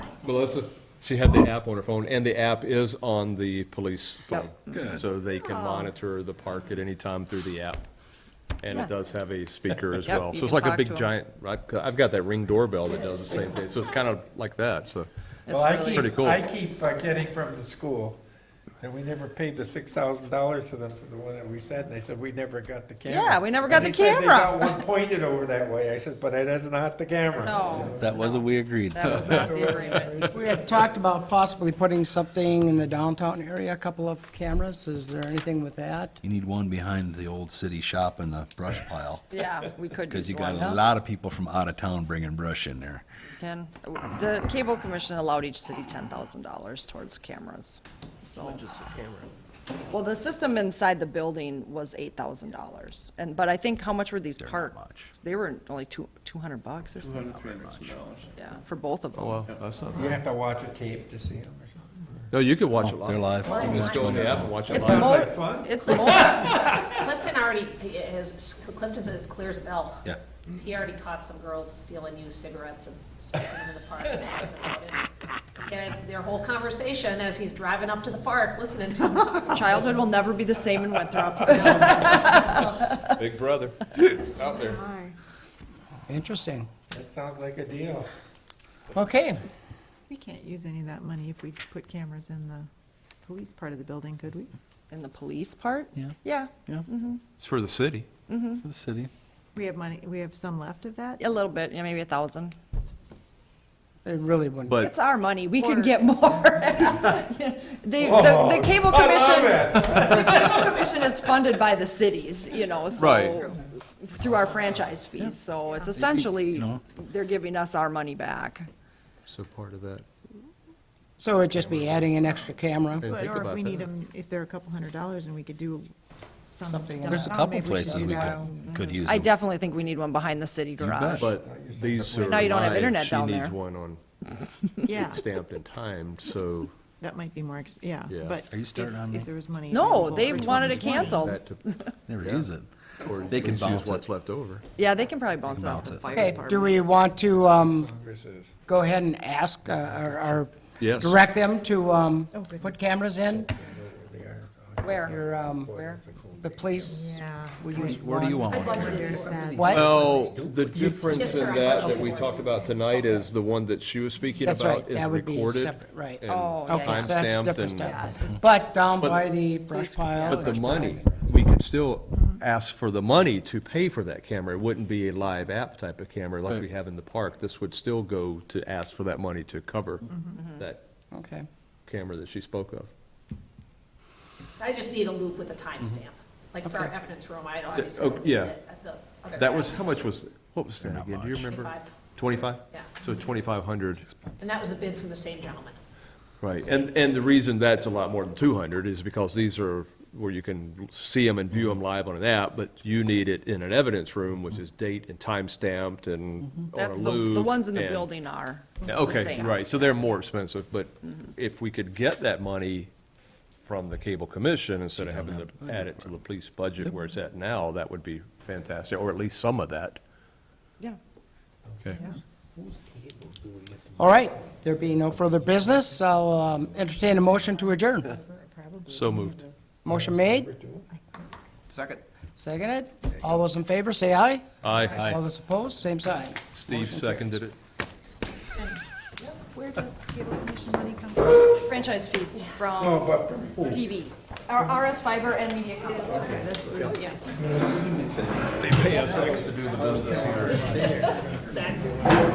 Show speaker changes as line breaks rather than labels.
Melissa, she had the app on her phone, and the app is on the police phone.
Good.
So they can monitor the park at any time through the app. And
Yeah.
it does have a speaker as
Yep,
well.
you
So it's
can
like a
talk to
big
'em.
giant, right? I've got that ring doorbell that does the same thing, so it's kind of like that, so.
Well, I
Pretty
keep,
cool.
I keep uh, getting from the school that we never paid the six thousand dollars to them for the one that we sent, and they said, we never got the camera.
Yeah, we never got
And
the
They said they
camera.
got one pointed over that way, I said, but it is not the camera.
No,
That wasn't we agreed.
that was not the agreement.
We had talked about possibly putting something in the downtown area, a couple of cameras. Is there anything with that?
You need one behind the old city shop in the brush pile,
Yeah, we could.
because you
use
got
one.
a lot of people from out of town bringing brush in there.
Ken, the cable commission allowed each city ten thousand dollars towards cameras, so. Well, the system inside the building was eight thousand dollars, and, but I think, how much were these
not
park?
much.
They were only two, two hundred bucks or something, yeah, for both
Oh,
of them.
Well, that's not
You
bad.
have to watch a tape to see them or something.
No, you could watch it live.
They're live.
You can Just go on the app and watch it
It's
live.
Sounds
more-
like fun.
It's more,
Clifton already, has, Clifton's as clear as a bell.
Yeah.
He already caught some girls stealing used cigarettes and smoking them in the park. and talking about it. And their whole conversation as he's driving up to the park, listening to him talk about
childhood will never be the same in Winthrop.
Big brother out there.
Interesting.
That sounds like a deal.
Okay,
We can't use any of that money if we put cameras in the police part of the building, could we?
In the police part?
Yeah.
Yeah,
Yeah,
It's for the city.
for the city.
We have money, we have some left of that?
a little bit, yeah, maybe a thousand.
it really wouldn't.
But
It's our money, we can
Or-
get more. The, the, the cable
I love
commission,
it.
commission is funded by the cities, you know,
Right.
so, through our franchise fees, so it's essentially,
know.
they're giving us our money back.
So part of that.
So it'd just be adding an extra camera.
Didn't
But-
think
Or if
about
we need
that.
them, if they're a couple hundred dollars and we could do some.
Something in
down
There's a
town,
couple
maybe should
places
do
we
that. Mm-hmm.
could, could use
I
them.
definitely think we need one behind the city
bet.
garage.
But these are
Now you don't have
live.
internet
She
down
needs
there.
one on
Yeah,
stamped and timed, so
that might be more, exp- yeah,
Yeah.
but.
Are you
if-
starting on me?
If there was money.
No,
available
they
for
wanted it
2020.
canceled.
that to,
Never use it.
or
They can
use
bounce
what's
it.
left over.
Yeah, they can probably bounce it off
bounce
the
it.
fire
Okay,
department.
do we want to, um,
This is-
go ahead and ask, uh, or, or
Yes.
direct them to, um,
Oh, goodness.
put cameras in?
Where?
Your, um, the police,
Yeah.
we use
Where do you
one.
want one? Karen?
There's that.
What?
Well, the difference
Yes, sir,
in
I
that
watched
that
it
we
before.
talked about tonight is the one that she was speaking
That's
about
right,
is
that would be
recorded.
separate, right.
and
Oh, yeah, yeah.
Okay, so that's
timestamped
different
and-
stuff. But down
But-
by the brush pile. Mm-hmm.
But the money, we could still ask for the money to pay for that camera. It wouldn't be a live app type of camera like we have in the park. This would still go to ask for that money to cover
Mm-hmm.
that
Okay.
camera that she spoke of.
it. I just need a loop with a timestamp. Like for our
Okay.
evidence room, I'd obviously.
oh,
loop
Mm-hmm. yeah.
it at the other
That was,
end.
how much was, what was that
Not
again? Do you
much.
remember?
25.
Twenty-five?
Yeah.
So twenty-five hundred,
And that was the bid from the same gentleman.
right. And, and the reason that's a lot more than two hundred is because these are where you can see them and view them live on an app, but you need it in an evidence room, which is date and time stamped and on a
That's the,
loop.
the ones in the
and-
building are. the Mm-hmm.
Okay,
same.
right, so they're more expensive, but if we could get that money from the cable commission instead of having to add it to the police budget where it's at now, that would be fantastic, or at least some of that.
Yeah.
Okay.
All right, there being no further business, I'll um, entertain a motion to adjourn.
So moved.
Motion made,
Second.
seconded. All those in favor, say aye.
Aye.
All those opposed, same sign.
Steve seconded it.
Where does cable commission money come from?
Franchise fees
Oh,
from
but
TV, or RS fiber and media.
They pay us X to do the business here.
Exactly.